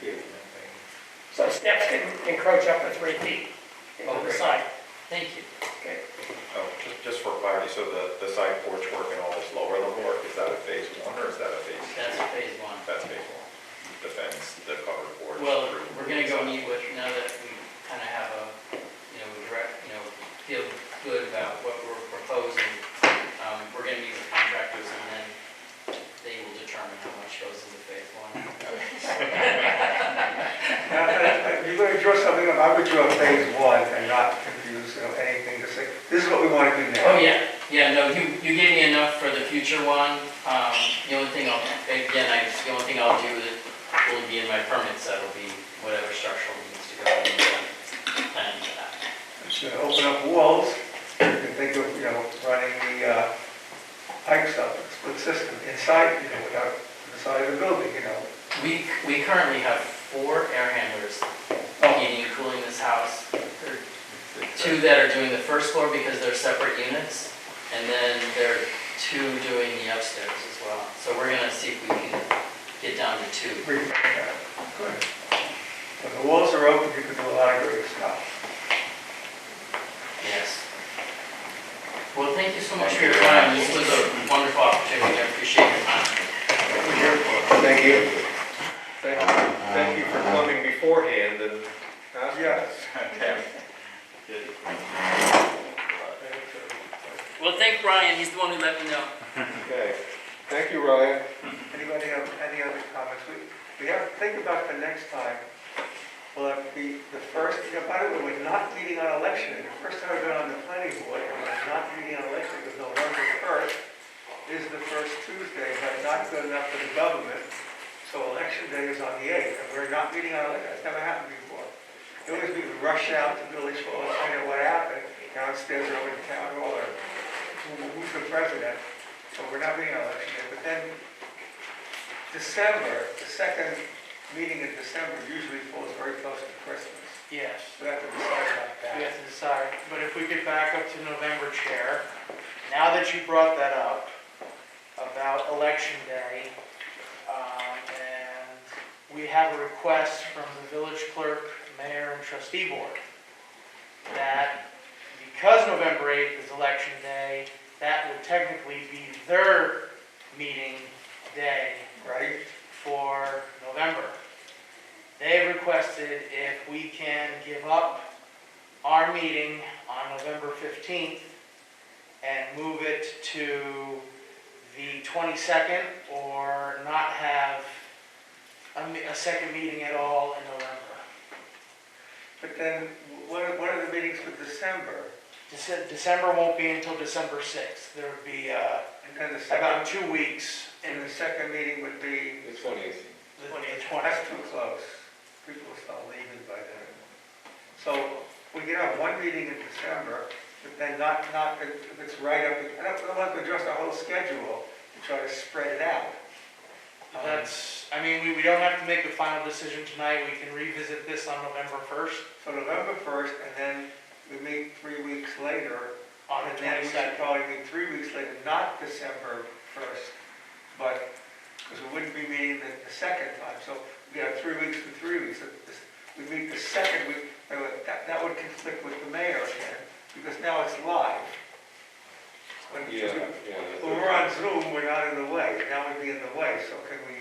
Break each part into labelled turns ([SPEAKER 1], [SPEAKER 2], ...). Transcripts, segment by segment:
[SPEAKER 1] here.
[SPEAKER 2] So steps can encroach up to three feet into the
[SPEAKER 1] Okay.
[SPEAKER 2] side.
[SPEAKER 3] Thank you.
[SPEAKER 2] Okay.
[SPEAKER 4] Oh, just, just for clarity, so the, the side porch work and all this lower level work, is that a phase one or is that a phase?
[SPEAKER 3] That's phase one.
[SPEAKER 4] That's phase one, the fence, the covered porch.
[SPEAKER 3] Well,
[SPEAKER 4] roof.
[SPEAKER 3] we're gonna go meet with, now that we kind of have a, you know, we direct, you know, feel good about what we're proposing, um, we're gonna meet with contractors and then they will determine how much goes into phase one.
[SPEAKER 1] Now, if- if You're going to draw something up, I would draw phase one and not confuse, you know, anything, just say, this is what we want to do now.
[SPEAKER 3] Oh, yeah, yeah, no, you, you gave me enough for the future one, um, the only thing I'll, again, I, the only thing I'll do that will be in my permits, that'll be whatever structural needs to go in, the plan for that.
[SPEAKER 1] It's going to open up walls, you can think of, you know, running the uh, pipes up, split system inside, you know, without the side of the building, you know.
[SPEAKER 3] We, we currently have four air handlers
[SPEAKER 1] Oh,
[SPEAKER 3] heating and cooling this house. There are Two that are doing the first floor because they're separate units, and then there are two doing the upstairs as well. So we're gonna see if we can get down to two.
[SPEAKER 1] reframe that. Good. When the walls are open, you can do a lot of great stuff.
[SPEAKER 3] Yes. Well, thank you so much for your time. This was a wonderful opportunity. I appreciate your time.
[SPEAKER 1] Thank you. Thank you.
[SPEAKER 4] Thank you for coming beforehand and asking.
[SPEAKER 1] Yes.
[SPEAKER 3] Well, thank Ryan. He's the one who let me know.
[SPEAKER 4] Okay, thank you, Ryan.
[SPEAKER 1] Anybody have any other comments? We, we have to think about the next time. Will that be the first, you know, by the way, we're not meeting on election. The first time I've been on the planning board, and we're not meeting on election because November first is the first Tuesday, but not good enough for the government. So election day is on the eighth, and we're not meeting on election. That's never happened before. It was we would rush out to Village Hall and find out what happened downstairs or over to town hall or who- who's the president. So we're not meeting on election day, but then December, the second meeting in December usually falls very close to Christmas.
[SPEAKER 5] Yes,
[SPEAKER 1] So we have to decide about
[SPEAKER 5] we
[SPEAKER 1] that.
[SPEAKER 5] have to decide, but if we could back up to November chair, now that you brought that up, about election day, um, and we have a request from the village clerk, mayor, and trustee board, that because November 8th is election day, that would technically be their meeting day
[SPEAKER 1] Right?
[SPEAKER 5] for November. They requested if we can give up our meeting on November 15th and move it to the 22nd or not have a, me- a second meeting at all in November.
[SPEAKER 1] But then, what are, what are the meetings for December?
[SPEAKER 5] Dece- December won't be until December 6th. There would be uh,
[SPEAKER 1] And then the
[SPEAKER 5] about
[SPEAKER 1] second,
[SPEAKER 5] two weeks in
[SPEAKER 1] and the second meeting would be,
[SPEAKER 4] The twentieth.
[SPEAKER 5] the 20th.
[SPEAKER 1] that's too close. People will start leaving by then. So we could have one meeting in December, but then not, not, if it's right up, I don't, I don't want to adjust the whole schedule to try to spread it out. Um,
[SPEAKER 5] That's, I mean, we, we don't have to make the final decision tonight. We can revisit this on November 1st.
[SPEAKER 1] So November first, and then we meet three weeks later,
[SPEAKER 5] on
[SPEAKER 1] and
[SPEAKER 5] the
[SPEAKER 1] then we should
[SPEAKER 5] 22nd.
[SPEAKER 1] probably meet three weeks later, not December first, but, because we wouldn't be meeting the, the second time, so we have three weeks to three weeks. If this- We meet the second week, uh, that, that would conflict with the mayor again, because now it's live. When
[SPEAKER 4] Yeah, yeah.
[SPEAKER 1] when we're on Zoom, we're not in the way, now we'd be in the way, so can we,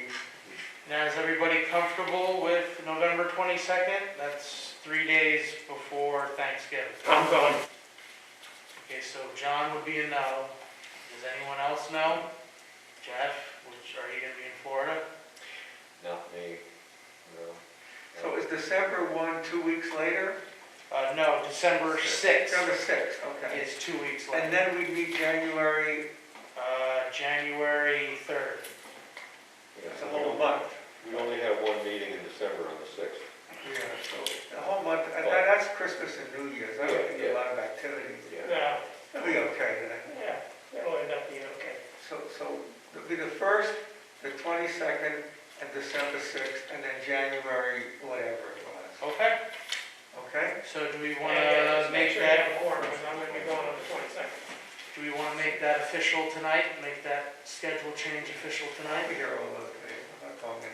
[SPEAKER 5] Now, is everybody comfortable with November 22nd? That's three days before Thanksgiving.
[SPEAKER 2] I'm going.
[SPEAKER 5] Okay, so John would be a no. Does anyone else know? Jeff, which, are you gonna be in Florida?
[SPEAKER 4] Not me, no.
[SPEAKER 1] so is December one, two weeks later?
[SPEAKER 5] Uh, no, December 6th
[SPEAKER 1] December sixth, okay.
[SPEAKER 5] is two weeks later.
[SPEAKER 1] And then we meet January
[SPEAKER 5] Uh, January 3rd.
[SPEAKER 1] It's a whole month.
[SPEAKER 4] We only have one meeting in December on the sixth.
[SPEAKER 1] Yeah, so a whole month, and that- that's Christmas and New Year's, I don't think a lot of activity.
[SPEAKER 4] Yeah.
[SPEAKER 2] No,
[SPEAKER 1] It'll be okay then.
[SPEAKER 2] yeah, it'll end up being okay.
[SPEAKER 1] So, so it'll be the first, the twenty-second, and December sixth, and then January, whatever it was,
[SPEAKER 5] Okay,
[SPEAKER 1] okay?
[SPEAKER 5] so do we
[SPEAKER 2] Yeah, yeah,
[SPEAKER 5] wanna
[SPEAKER 2] just
[SPEAKER 5] make
[SPEAKER 2] uh, sure you have
[SPEAKER 5] that,
[SPEAKER 2] a quorum, because I'm gonna be going on the twenty-second.
[SPEAKER 5] do we wanna make that official tonight? Make that schedule change official
[SPEAKER 1] I'll
[SPEAKER 5] tonight?
[SPEAKER 1] be here all those days.